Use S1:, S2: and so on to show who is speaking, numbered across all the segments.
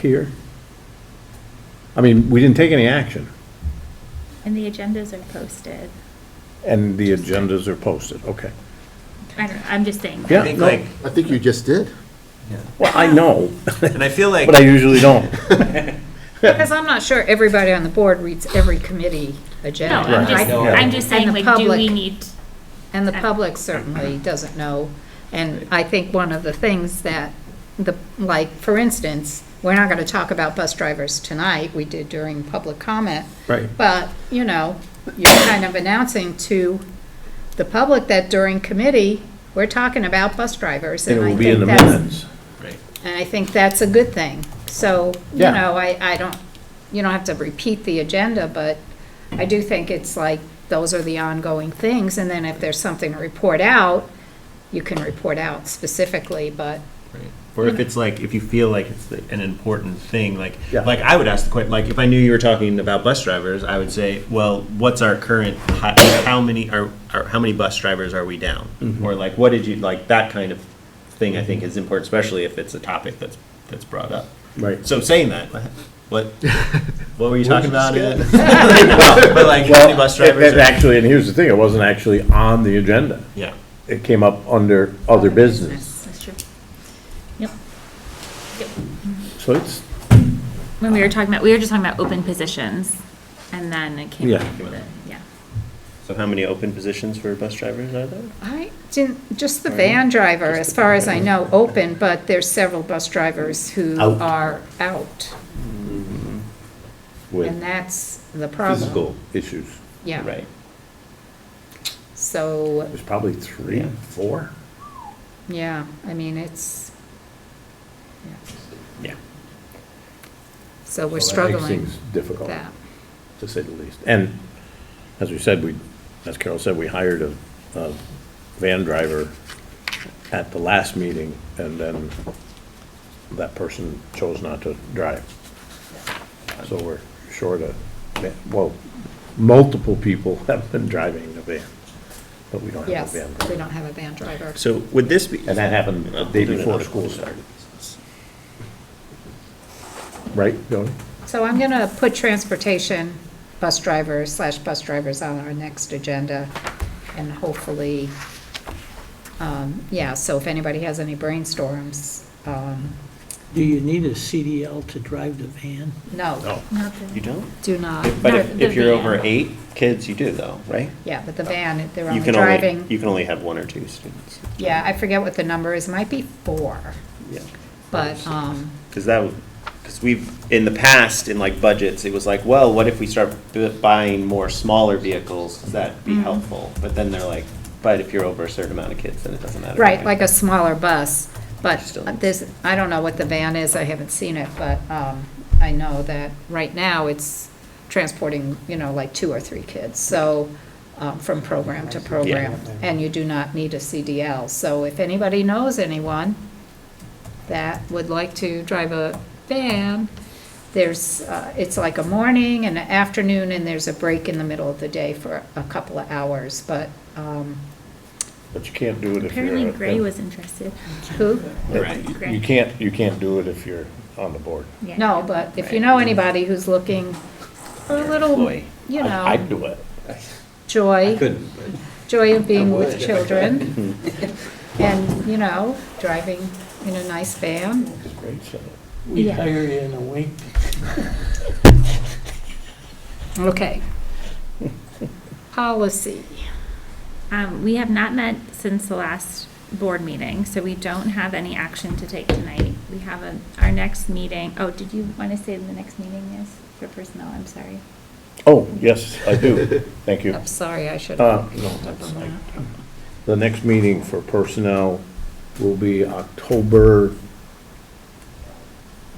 S1: here? I mean, we didn't take any action,
S2: And the agendas are posted.
S1: and the agendas are posted, okay.
S2: I don't, I'm just saying.
S1: Yeah,
S3: I think
S1: no.
S3: like,
S4: I think you just did.
S1: Well, I know,
S3: and I feel like,
S1: but I usually don't.
S5: Because I'm not sure everybody on the board reads every committee
S2: No,
S5: agenda.
S2: I'm
S1: Right.
S2: just,
S3: No.
S2: I'm just saying,
S5: And the
S2: like, do we
S5: public.
S2: need,
S5: And the public certainly doesn't know. And I think one of the things that, the, like, for instance, we're not going to talk about bus drivers tonight, we did during public comment.
S1: Right.
S5: But, you know, you're kind of announcing to the public that during committee, we're talking about bus drivers.
S1: It
S5: and I
S1: will be
S5: think
S1: in the
S5: that's-
S1: minutes.
S5: And I think that's a good thing. So, you
S1: Yeah.
S5: know, I, I don't, you don't have to repeat the agenda, but I do think it's like, those are the ongoing things, and then if there's something to report out, you can report out specifically, but,
S3: or if it's like, if you feel like it's the- an important thing, like,
S1: Yeah.
S3: like I would ask the question, like, if I knew you were talking about bus drivers, I would say, well, what's our current, how, how many are, are, how many bus drivers are we down? Or like, what did you, like, that kind of thing I think is important, especially if it's a topic that's, that's brought up.
S1: Right.
S3: So saying that, what, what were you talking about?
S1: Working
S3: again? No, But like, how many bus drivers?
S1: And
S3: are-
S1: actually, and here's the thing, it wasn't actually on the agenda.
S3: Yeah.
S1: It came up under other business.
S2: that's true.
S1: So it's,
S2: When we were talking about, we were just talking about open positions, and then it came
S1: Yeah.
S2: up with the, yeah.
S3: So how many open positions for bus drivers are there?
S5: I didn't, just the van driver, as far as I know, open, but there's several bus drivers who
S1: Out.
S5: are out, and
S1: with
S5: that's the problem.
S1: physical issues,
S5: Yeah,
S3: Right.
S5: so,
S1: there's probably three,
S3: Yeah.
S1: four?
S5: yeah, I mean, it's, yeah.
S3: Yeah.
S5: so
S1: So
S5: we're
S1: that makes
S5: struggling
S1: things
S5: with
S1: Difficult.
S5: that.
S1: to say the least. And as we said, we, as Carol said, we hired a, a van driver at the last meeting, and then that person chose not to drive. So we're short of, va- well, multiple people have been driving the van, but we don't have
S5: Yes,
S1: a van. driver.
S5: we don't have a van driver.
S3: So would this be?
S1: And that happened the day before school started, right, Jody?
S5: So I'm going to put transportation, bus drivers slash bus drivers on our next agenda, and hopefully, um, yeah, so if anybody has any brainstorms, um,
S6: Do you need a CDL to drive the van?
S5: no,
S2: Not the-
S3: You don't?
S5: do not,
S3: But
S2: No,
S3: if,
S2: the
S3: if you're
S2: van.
S3: over eight kids, you do though, right?
S5: yeah, but the van, they're
S3: You
S5: only
S3: can only, you
S5: driving,
S3: can only have one or two students.
S5: yeah, I forget what the number is, might be four,
S3: Yeah.
S5: but, um,
S3: Because that, because we've, in the past, in like budgets, it was like, well, what if we start bu- buying more smaller vehicles? Does that
S5: Mm-hmm.
S3: be helpful? But then they're like, but if you're over a certain amount of kids, then it doesn't matter.
S5: right, like a smaller bus, but
S3: Still.
S5: this, I don't know what the van is, I haven't seen it, but um, I know that right now it's transporting, you know, like two or three kids, so, um, from program to program, and you do not need a CDL. So if anybody knows anyone that would like to drive a van, there's, uh, it's like a morning and an afternoon, and there's a break in the middle of the day for a couple of hours, but um,
S1: But you can't do it if you're.
S2: Apparently
S1: a-
S2: Gray was interested.
S5: who?
S1: that- You
S2: Gray.
S1: can't, you can't do it if you're on the board.
S2: Yeah.
S5: No, but if you know anybody who's looking for a little,
S3: Employee.
S5: you
S1: I- I'd
S5: know,
S1: do it.
S5: joy,
S7: Couldn't,
S5: joy of being with children, and, you know, driving in a nice van.
S1: It's great, so.
S6: We
S2: Yeah.
S6: hire you in a week.
S5: Okay. Policy.
S2: Um, we have not met since the last board meeting, so we don't have any action to take tonight. We have a, our next meeting, oh, did you want to say the next meeting is for personnel? I'm sorry.
S1: Oh, yes, I do. Thank you.
S5: I'm sorry, I should
S1: Uh,
S5: have.
S1: no, that's like- The next meeting for personnel will be October,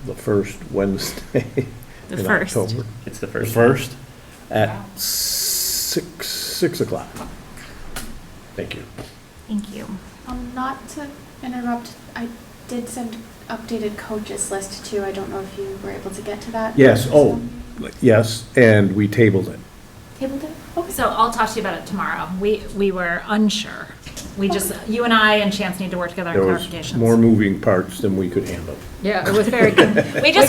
S1: the first Wednesday
S2: The
S1: in
S2: first.
S1: October.
S3: It's the
S1: The
S3: first.
S1: first, at six, six o'clock. Thank you.
S2: Thank you.
S8: Um, not to interrupt, I did send updated coaches list too. I don't know if you were able to get to that.
S1: Yes, oh,
S8: So-
S1: yes, and we tabled it.
S8: Tabled it? Okay.
S9: So I'll talk to you about it tomorrow. We, we were unsure. We just, you and I and Chance need to work together on
S1: There was more
S9: clarifications.
S1: moving parts than we could handle.
S5: Yeah, it was very, con-
S9: We just